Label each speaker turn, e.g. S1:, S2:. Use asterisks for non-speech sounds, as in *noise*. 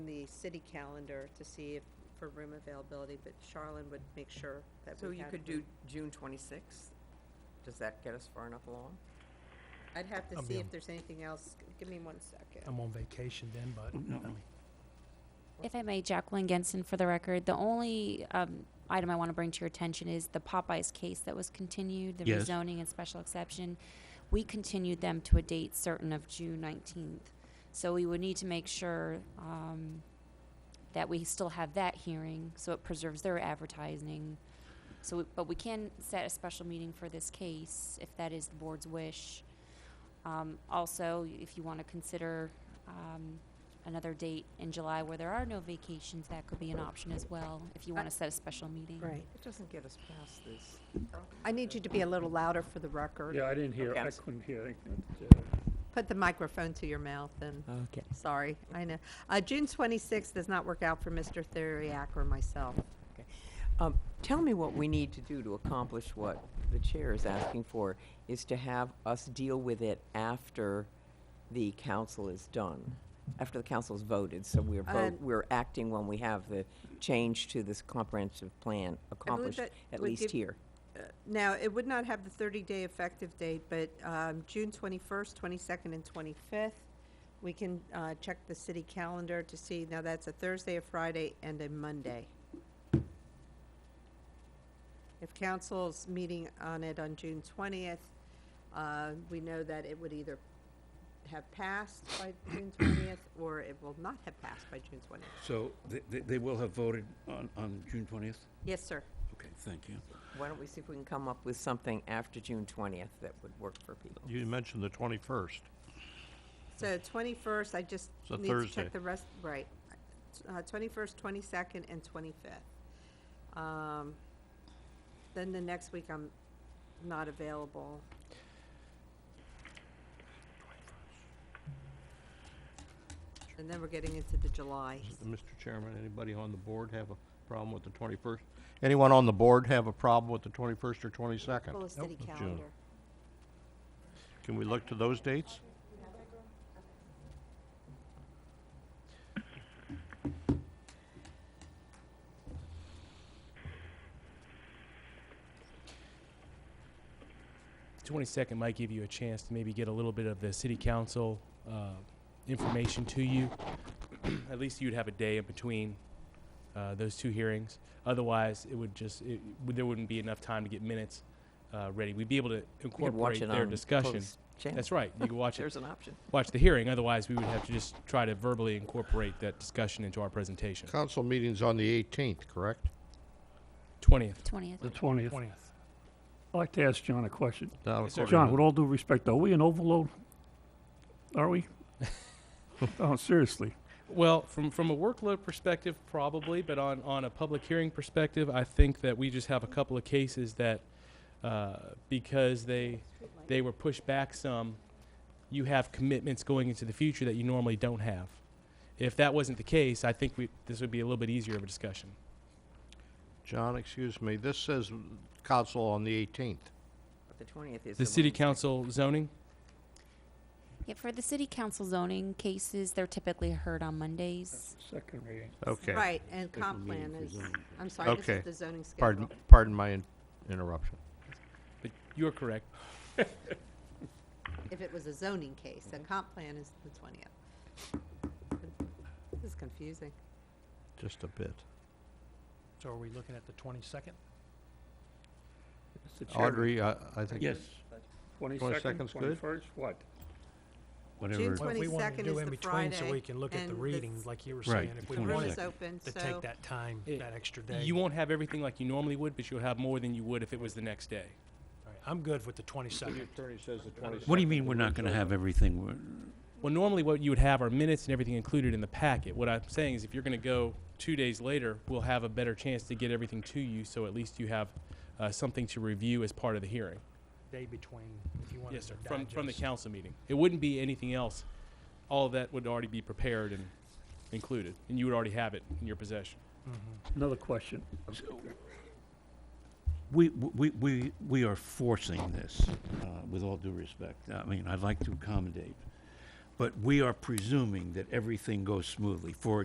S1: the city calendar to see if, for room availability, but Charlene would make sure that
S2: So
S1: we
S2: you
S1: had
S2: could do
S1: room.
S2: June twenty-sixth? Does that get us far enough along?
S1: I'd have to
S3: I'll be
S1: see
S3: on-
S1: if there's anything else, G- give me one second.
S3: I'm on vacation then, but,
S4: Oh,
S3: I mean,
S5: If I may, Jacqueline Genson, for the record, the only um, item I want to bring to your attention is the Popeyes case that was continued, the
S6: Yes.
S5: rezoning and special exception. We continued them to a date certain of June 19th. So we would need to make sure um, that we still have that hearing, so it preserves their advertising. So, we- but we can set a special meeting for this case, if that is the board's wish. Um, Also, if you want to consider um, another date in July where there are no vacations, that could be an option as well, if you want to set a special meeting.
S1: Right.
S2: It doesn't get us past this.
S1: I need you to be a little louder for the record.
S4: Yeah, I didn't hear,
S2: Okay, I'm
S4: I
S2: s-
S4: couldn't hear. I think that, uh,
S1: Put the microphone to your mouth and,
S2: Okay.
S1: sorry, I know. Uh, June twenty-sixth does not work out for Mr. Theriak or myself.
S2: Um, tell me what we need to do to accomplish what the chair is asking for, is to have us deal with it after the council is done, after the council's voted, so we're vote,
S1: Um,
S2: we're acting when we have the change to this comprehensive plan accomplished,
S1: that
S2: at
S1: would
S2: least
S1: give-
S2: here.
S1: Now, it would not have the 30-day effective date, but um, June 21st, 22nd, and 25th, we can uh, check the city calendar to see, now that's a Thursday, a Friday, and a Monday. If council's meeting on it on June 20th, uh, we know that it would either have passed by June 20th, or it will not have passed by June 20th.
S6: So they- they, they will have voted on, on June twentieth?
S1: Yes, sir.
S6: Okay, thank you.
S2: Why don't we see if we can come up with something after June twentieth that would work for people?
S7: You mentioned the 21st.
S1: So twenty-first, I just
S7: It's a
S1: need to check
S7: Thursday.
S1: the rest, right. Uh, Twenty-first, twenty-second, and twenty-fifth. Um, Then the next week, I'm not available. And then we're getting into the July.
S7: Mr. Chairman, anybody on the board have a problem with the 21st? Anyone on the board have a problem with the 21st or
S1: Full
S7: 22nd?
S1: of city
S7: June.
S1: calendar.
S7: Can we look to those dates?
S8: twenty-second might give you a chance to maybe get a little bit of the city council uh, information to you. *clears throat* At least you'd have a day in between uh, those two hearings. Otherwise, it would just it, w- there wouldn't be enough time to get minutes uh, ready. We'd be able to
S2: We could watch
S8: incorporate
S2: it
S8: their
S2: on
S8: discussion.
S2: closed channel.
S8: That's right.
S2: *laughs*
S8: You can watch it,
S2: There's an option.
S8: watch the hearing. Otherwise, we would have to just try to verbally incorporate that discussion into our presentation.
S7: Council meeting's on the 18th, correct?
S8: Twentieth.
S5: 20th.
S4: The twentieth. I'd
S3: 20th.
S4: like to ask John a question.
S8: Yes, sir.
S4: John, with all due respect, are we in overload? Are
S8: *laughs*
S4: we? Oh, seriously.
S8: Well, from from a workload perspective, probably, but on on a public hearing perspective, I think that we just have a couple of cases that uh, because they they were pushed back some, you have commitments going into the future that you normally don't have. If that wasn't the case, I think we this would be a little bit easier of a discussion.
S7: John, excuse me, this says council on the 18th.
S2: But the twentieth is
S8: The city
S2: Wednesday.
S8: council zoning.
S5: Yeah, for the city council zoning cases, they're typically heard on Mondays.
S4: Second reading.
S7: Okay.
S1: Right, and comp plan is, I'm sorry, this
S7: Okay.
S1: is the zoning schedule.
S7: Pardon, pardon my in- interruption.
S8: But you're correct.
S1: If it was a zoning case, then comp plan is the twentieth. This is confusing.
S7: Just a bit.
S3: so are we looking at the twenty-second?
S4: Mr. Chairman,
S7: Audrey, I I think.
S6: Yes,
S4: Twenty-second,
S7: 22nd's good?
S4: twenty-first, what?
S6: whatever.
S1: June
S3: Well, if we wanted
S1: 22nd
S3: to do
S1: is
S3: in
S1: the
S3: between So
S1: Friday,
S3: we can look at the
S1: and the
S3: reading,
S1: s-
S3: like you were
S6: Right,
S3: saying, if
S6: the
S3: we
S1: The room
S3: wanted
S1: is open,
S3: to
S1: so
S3: take that time,
S8: It-
S3: that extra day.
S8: You won't have everything like you normally would, but you'll have more than you would if it was the next day.
S3: All right, I'm good with the twenty-second.
S7: attorney says the 22nd.
S6: What do you mean we're not gonna have everything? We're-
S8: Well, normally what you would have are minutes and everything included in the packet. What I'm saying is if you're going to go two days later, we'll have a better chance to get everything to you, so at least you have uh, something to review as part of the hearing.
S3: Day between, if you wanted
S8: Yes,
S3: to
S8: sir, from, from the
S3: digest.
S8: council meeting. It wouldn't be anything else. All of that would already be prepared and included, and you would already have it in your possession.
S4: Another question.
S6: We, we, we, we are forcing this, uh, with all due respect. I mean, I'd like to accommodate. But we are presuming that everything goes smoothly. For